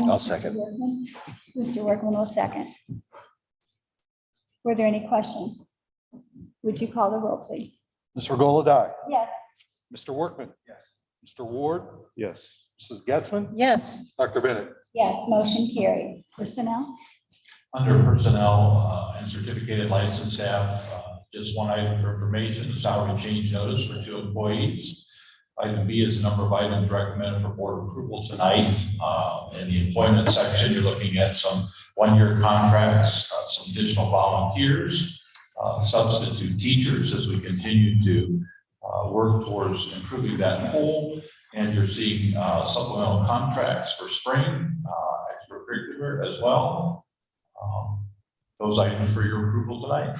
and I'll Mr. second. Workman. Mr. Workman will second. Were there any questions? Would you call the roll, please? Ms. Regola Dye. Yes. Mr. Workman. Yes. Mr. Ward. Yes. Mrs. Getzmann. yes, Dr. Bennett. Yes, motion carried. Personnel? Under personnel uh, and certificated license staff, uh, just one item for information, the salary change notice for two employees. Item B is the number of items recommended for board approval tonight. Uh, In the employment section, you're looking at some one-year contracts, uh, some additional volunteers, uh, substitute teachers as we continue to uh, work towards improving that whole. And you're seeing uh, supplemental contracts for spring, uh, extracurricular as well. Um, Those items for your approval tonight.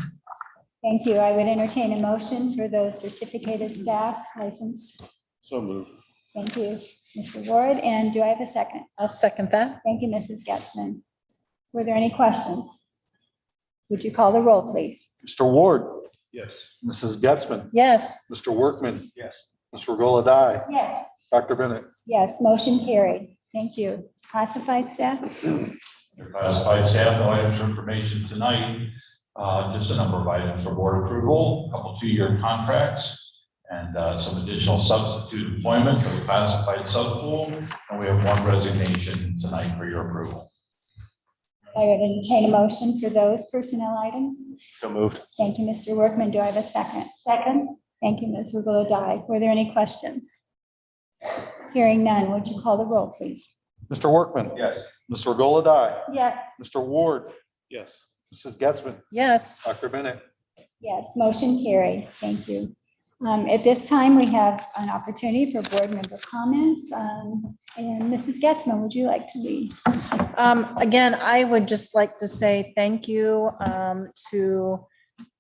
Thank you. I would entertain a motion for those certificated staff licensed. So moved. Thank you, Mr. Ward. And do I have a second? I'll second that. Thank you, Mrs. Getzmann. Were there any questions? Would you call the roll, please? Mr. Ward. Yes. Mrs. Getzmann. Yes, Mr. Workman. Yes. Ms. Regola Dye. Yes. Dr. Bennett. Yes, motion carried. Thank you. Classified staff? Your classified staff, no items for information tonight. Uh, Just a number of items for board approval, a couple two-year contracts, and uh, some additional substitute employment for the classified subpool. And we have one resignation tonight for your approval. I would entertain a motion for those personnel items. So moved. Thank you, Mr. Workman. Do I have a second? Second. Thank you, Ms. Regola Dye. Were there any questions? Hearing none, would you call the roll, please? Mr. Workman. Yes. Ms. Regola Dye. Yes. Mr. Ward. Yes. Mrs. Getzmann. yes, Dr. Bennett. Yes, motion carried. Thank you. Um, At this time, we have an opportunity for board member comments. Um, And Mrs. Getzmann, would you like to lead? Um, again, I would just like to say thank you um, to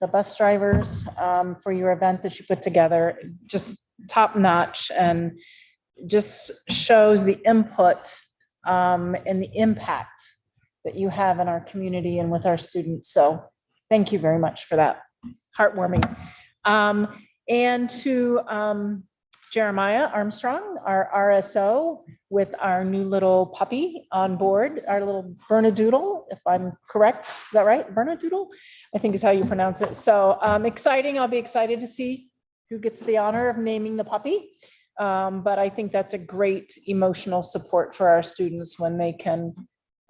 the bus drivers um, for your event that you put together, just top notch and just shows the input um, and the impact that you have in our community and with our students. So thank you very much for that. Heartwarming. Um, and to um, Jeremiah Armstrong, our RSO, with our new little puppy on board, our little Bernadoodle, if I'm correct. Is that right? Bernadoodle, I think is how you pronounce it. So um, exciting. I'll be excited to see who gets the honor of naming the puppy. Um, But I think that's a great emotional support for our students when they can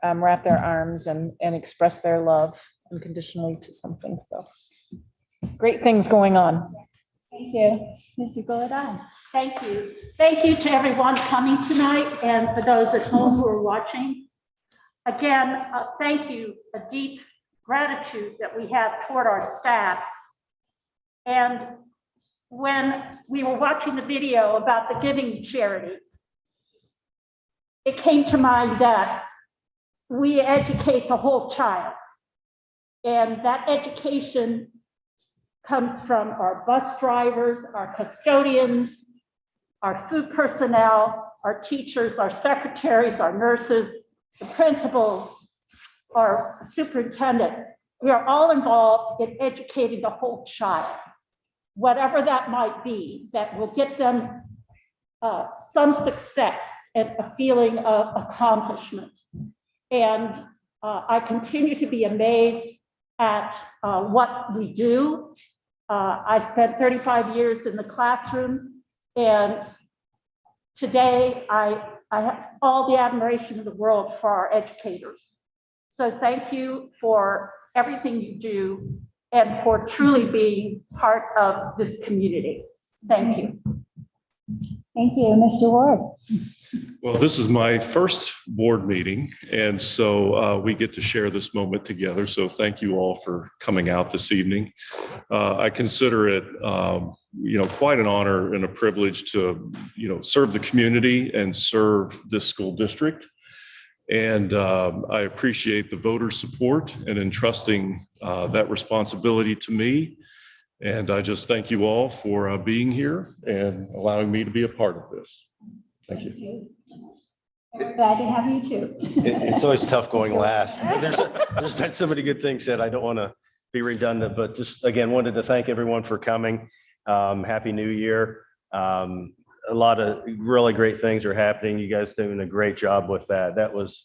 um, wrap their arms and, and express their love unconditionally to something. So great things going on. Thank you. Ms. Regola Dye? Thank you. Thank you to everyone coming tonight and for those at home who are watching. Again, uh, thank you, a deep gratitude that we have toward our staff. And when we were watching the video about the giving charity, it came to mind that we educate the whole child. And that education comes from our bus drivers, our custodians, our food personnel, our teachers, our secretaries, our nurses, the principals, our superintendent. We are all involved in educating the whole child, whatever that might be, that will get them uh, some success and a feeling of accomplishment. And uh, I continue to be amazed at uh, what we do. Uh, I've spent 35 years in the classroom and today I, I have all the admiration of the world for our educators. So thank you for everything you do and for truly being part of this community. Thank you. Thank you, Mr. Ward. Well, this is my first board meeting, and so uh, we get to share this moment together. So thank you all for coming out this evening. Uh, I consider it, um, you know, quite an honor and a privilege to, you know, serve the community and serve this school district. And um, I appreciate the voter support and entrusting uh, that responsibility to me. And I just thank you all for uh, being here and allowing me to be a part of this. Thank you. And we're Glad to have you too. It- It's always tough going last. Thank you. There's, there's been so many good things said. I don't want to be redundant, but just again, wanted to thank everyone for coming. Um, Happy New Year. Um, A lot of really great things are happening. You guys doing a great job with that. That was